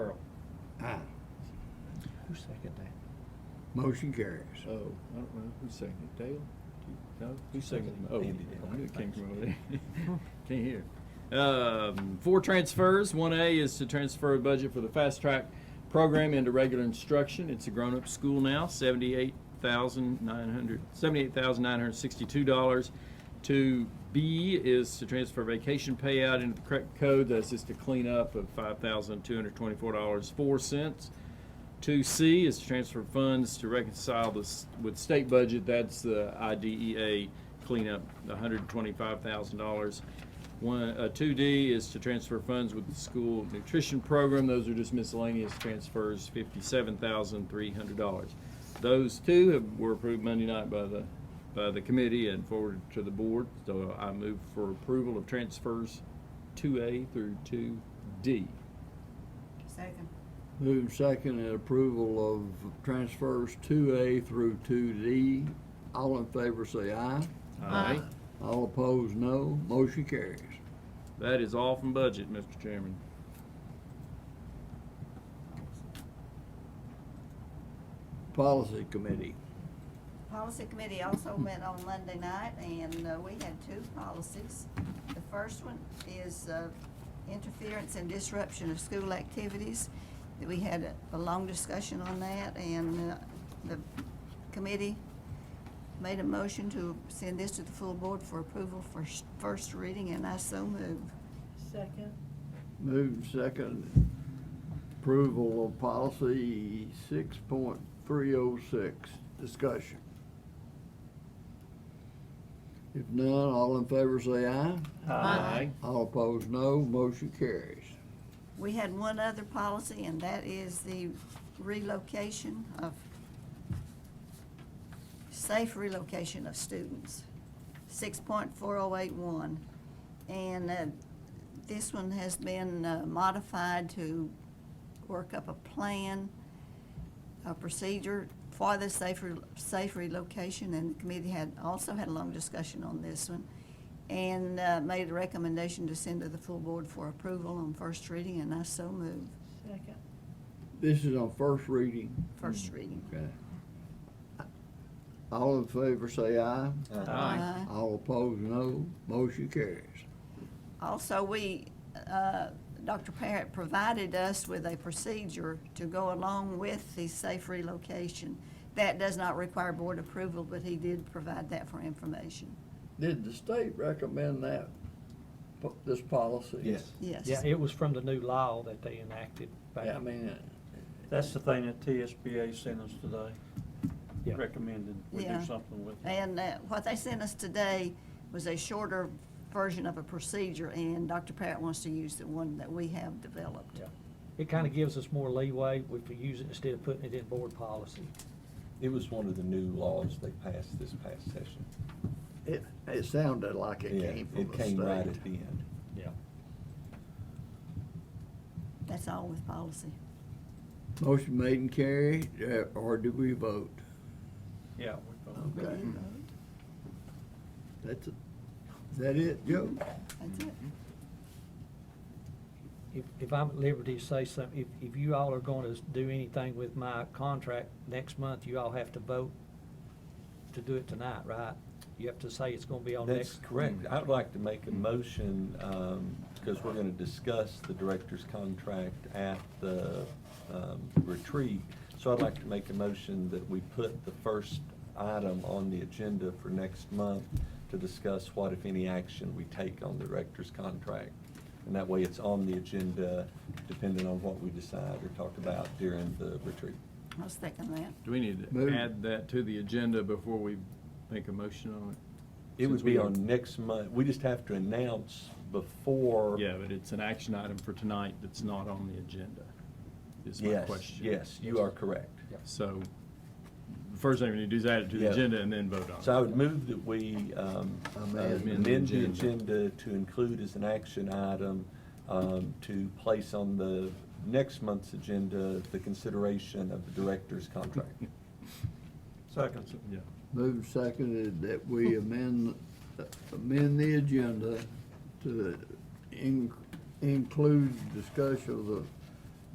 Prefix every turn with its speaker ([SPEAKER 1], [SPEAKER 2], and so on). [SPEAKER 1] Aye.
[SPEAKER 2] Who seconded that?
[SPEAKER 1] Motion carries.
[SPEAKER 3] Oh, I don't know, who seconded it, Dale? No, who seconded it? Oh,
[SPEAKER 2] Andy did.
[SPEAKER 3] I knew it came from over there. Can't hear. Um, four transfers, one A is to transfer a budget for the fast track program into regular instruction, it's a grown-up school now, seventy-eight thousand nine hundred, seventy-eight thousand nine hundred sixty-two dollars. To B E is to transfer vacation payout into the correct code, that's just a cleanup of five thousand two hundred twenty-four dollars, four cents. Two C is to transfer funds to reconcile this with state budget. That's the IDEA cleanup, the hundred twenty-five thousand dollars. One, uh, two D is to transfer funds with the school nutrition program. Those are just miscellaneous transfers, fifty-seven thousand three hundred dollars. Those two have, were approved Monday night by the, by the committee and forwarded to the board. So I move for approval of transfers two A through two D.
[SPEAKER 4] Second.
[SPEAKER 1] Move second and approval of transfers two A through two D. All in favor say aye.
[SPEAKER 4] Aye.
[SPEAKER 1] All opposed, no. Motion carries.
[SPEAKER 3] That is all from budget, Mr. Chairman.
[SPEAKER 1] Policy Committee.
[SPEAKER 4] Policy Committee also met on Monday night, and uh, we had two policies. The first one is uh, interference and disruption of school activities. We had a- a long discussion on that, and uh, the committee made a motion to send this to the full board for approval for s- first reading, and I so move.
[SPEAKER 5] Second.
[SPEAKER 1] Move second approval of policy six point three oh six. Discussion. If none, all in favor say aye.
[SPEAKER 3] Aye.
[SPEAKER 1] All opposed, no. Motion carries.
[SPEAKER 4] We had one other policy, and that is the relocation of, safe relocation of students, six point four oh eight one. And, uh, this one has been uh, modified to work up a plan, a procedure for the safe, re- safe relocation, and the committee had, also had a long discussion on this one and uh, made a recommendation to send to the full board for approval on first reading, and I so move
[SPEAKER 5] Second.
[SPEAKER 1] This is on first reading.
[SPEAKER 4] first
[SPEAKER 2] Mm.
[SPEAKER 4] reading.
[SPEAKER 1] Okay. All in favor say aye.
[SPEAKER 6] Uh-huh.
[SPEAKER 4] Aye.
[SPEAKER 1] All opposed, no. Motion carries.
[SPEAKER 4] Also, we, uh, Dr. Parrott provided us with a procedure to go along with the safe relocation. That does not require board approval, but he did provide that for information.
[SPEAKER 1] Did the state recommend that, po- this policy?
[SPEAKER 4] Yes.
[SPEAKER 2] Yeah, it was from the new law that they enacted back.
[SPEAKER 1] Yeah, I mean, uh,
[SPEAKER 7] That's the thing that TSBA sent us today,
[SPEAKER 2] Yeah.
[SPEAKER 7] recommended we
[SPEAKER 4] Yeah.
[SPEAKER 7] do something with. it.
[SPEAKER 4] And uh, what they sent us today was a shorter version of a procedure, and Dr. Parrott wants to use the one that we have developed.
[SPEAKER 2] Yeah. It kind of gives us more leeway if we use it instead of putting it in board policy.
[SPEAKER 6] It was one of the new laws they passed this past session.
[SPEAKER 1] it, it sounded like it
[SPEAKER 6] Yeah,
[SPEAKER 1] came from the
[SPEAKER 6] It came right
[SPEAKER 1] state.
[SPEAKER 6] at the end.
[SPEAKER 2] Yeah.
[SPEAKER 4] That's all with policy.
[SPEAKER 1] Motion made and carried, uh, or do we vote?
[SPEAKER 7] Yeah, we voted.
[SPEAKER 1] Okay. That's, it. Is that it, Joe?
[SPEAKER 4] That's it.
[SPEAKER 2] If, if I'm at liberty to say something, if, if you all are going to do anything with my contract next month, you all have to vote to do it tonight, right? You have to say it's going to be on next.
[SPEAKER 6] That's correct. I'd like to make a motion, um, because we're gonna discuss the director's contract at the, um, retreat. So I'd like to make a motion that we put the first item on the agenda for next month to discuss what, if any, action we take on the director's contract. And that way it's on the agenda, depending on what we decide or talk about during the retreat.
[SPEAKER 4] I was thinking that.
[SPEAKER 3] Do we need to
[SPEAKER 1] Move.
[SPEAKER 3] add that to the agenda before we make a motion on it?
[SPEAKER 6] It
[SPEAKER 3] Since
[SPEAKER 6] would
[SPEAKER 3] we
[SPEAKER 6] be
[SPEAKER 3] don't-
[SPEAKER 6] on next month. We just have to announce before.
[SPEAKER 3] Yeah, but it's an action item for tonight that's not on the agenda, is my
[SPEAKER 6] Yes,
[SPEAKER 3] question.
[SPEAKER 6] yes, you are correct.
[SPEAKER 3] So, the first thing we need to do is add it to the
[SPEAKER 6] Yeah.
[SPEAKER 3] agenda and then vote on it.
[SPEAKER 6] So I would move that we um,
[SPEAKER 1] Amend.
[SPEAKER 6] amend the
[SPEAKER 3] Amend the
[SPEAKER 6] agenda to include as an action item um, to place on the next month's agenda the consideration of the director's contract.
[SPEAKER 7] Second.
[SPEAKER 3] Yeah.
[SPEAKER 1] Moved seconded that we amend, amend the agenda to in- include discussion of the